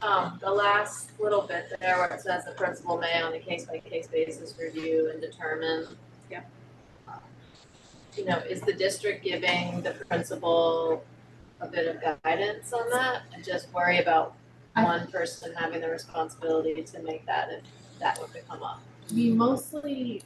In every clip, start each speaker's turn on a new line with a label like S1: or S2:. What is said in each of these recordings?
S1: Um, the last little bit there where it says the principal may on a case-by-case basis review and determine.
S2: Yep.
S1: You know, is the district giving the principal a bit of guidance on that? And just worry about
S3: I-
S1: one person having the responsibility to make that if that would become up.
S3: We mostly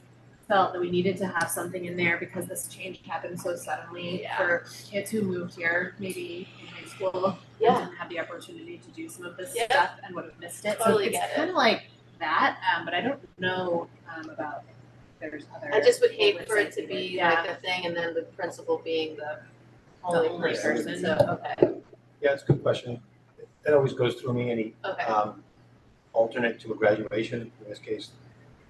S3: felt that we needed to have something in there because this change happened so suddenly
S1: Yeah.
S3: for kids who moved here, maybe in high school, and
S1: Yeah.
S3: didn't have the opportunity to do some of this
S1: Yeah.
S3: stuff and would have missed it.
S1: Totally
S3: so
S1: get
S3: it's
S1: it.
S3: kind of like that, um, but I don't know um, about if there's other.
S1: I just would hate for it
S3: language
S1: to
S3: like
S1: be
S3: Yeah.
S1: like a thing and then the principal being the
S3: only
S1: only person,
S3: person.
S1: so, okay,
S4: Yeah, it's a good question. That always goes through me, any
S1: okay,
S4: um, alternate to a graduation, in this case,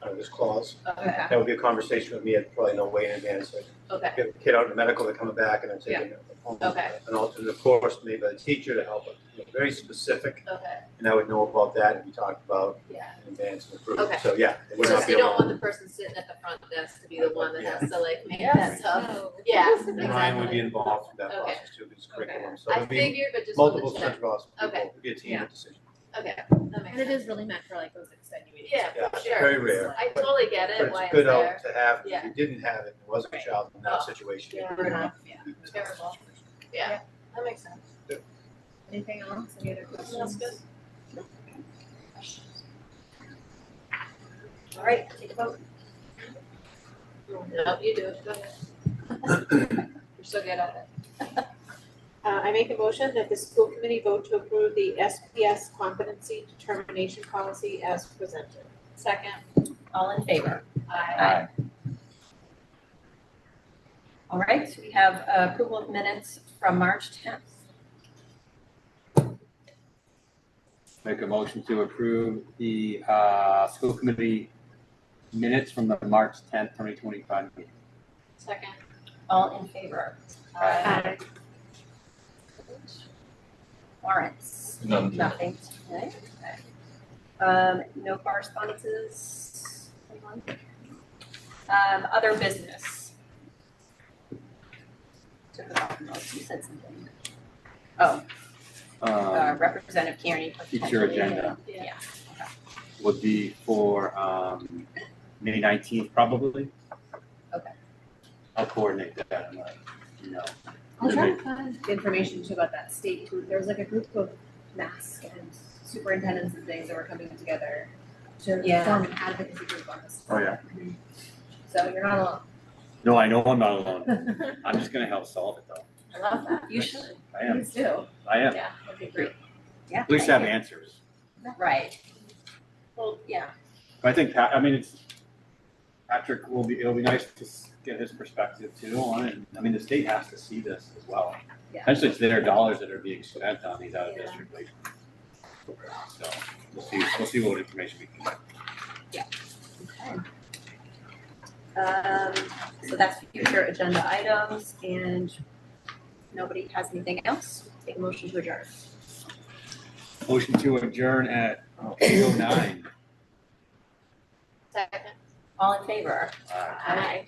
S4: under this clause.
S1: okay,
S4: That would be a conversation with me, I'd probably know way in advance, like,
S1: okay,
S4: get a kid out of medical, they're coming back, and I'm taking
S1: Okay.
S4: an alternate course, maybe by the teacher to help, you know, very specific,
S1: okay,
S4: and I would know about that, and we talked about
S1: yeah.
S4: in advance and approved.
S1: Okay.
S4: So, yeah, it would
S1: So
S4: not be
S1: you
S4: a
S1: don't want
S4: long.
S1: the person sitting at the front desk to be the one that has to like make
S2: Yeah.
S1: that tough,
S2: Oh.
S1: yeah, exactly.
S4: Ryan would be involved in that
S1: Okay.
S4: process too, because curriculum, so
S1: I
S4: there'd be
S1: figured, but just wanted
S4: multiple
S1: to check,
S4: central people,
S1: Okay.
S4: it'd be a team
S3: Yeah.
S4: decision.
S1: okay, that makes
S3: And it
S1: sense,
S3: is really meant for like those extenuating.
S1: yeah,
S4: Yeah,
S1: for sure,
S4: Very rare.
S1: I totally get
S4: But
S1: it, why it's
S4: it's good out
S1: there,
S4: to have, if
S1: Yeah.
S4: you didn't have it, there wasn't a
S3: Right.
S4: child in
S1: Oh.
S4: that situation.
S1: Yeah.
S4: it would
S3: Yeah.
S4: be a tough
S1: Terrible.
S4: situation.
S1: yeah, that makes sense,
S3: Anything else? Any other questions?
S1: that's good.
S2: All right, take a vote.
S1: No, you do it, go ahead. You're so good at it.
S5: Uh, I make a motion that the school committee vote to approve the SPS competency determination policy as presented.
S1: Second,
S2: All in favor?
S1: I,
S2: All right, we have uh, approval of minutes from March tenth.
S6: Make a motion to approve the uh, school committee minutes from the March tenth, twenty twenty-five meeting.
S1: second,
S2: All in favor?
S1: I,
S3: Um,
S2: Warrants?
S7: None.
S2: Nothing today. Okay. Um, no correspondences? Anyone? Um, other business? Took it off, unless you said something. Oh, uh,
S6: Um,
S2: Representative Kearney.
S6: Future agenda
S1: yeah,
S6: would be for um, May nineteenth, probably.
S2: Okay.
S6: I'll coordinate that, I'm like, you know.
S3: I'll try to find information too about that state group. There was like a group of mask and superintendents and things that were coming together to
S2: Yeah.
S3: form an advocacy group on this.
S6: Oh, yeah.
S3: So you're not alone.
S6: No, I know I'm not alone. I'm just gonna help solve it though.
S3: I love that.
S2: You should,
S6: I am,
S3: Please do.
S6: I am.
S2: yeah,
S3: That'd be great.
S2: yeah.
S6: At least have answers.
S2: Right. Well, yeah,
S6: But I think Pat, I mean, it's, Patrick will be, it'll be nice to s- get his perspective too on it. I mean, the state has to see this as well.
S3: Yeah.
S6: Essentially, it's their dollars that are being spent on these out of district places. So we'll see, we'll see what information we can get.
S2: um, so that's future agenda items and nobody has anything else, take a motion to adjourn.
S6: Motion to adjourn at eight oh nine.
S1: second.
S2: All in favor?
S6: Uh,
S1: Aye.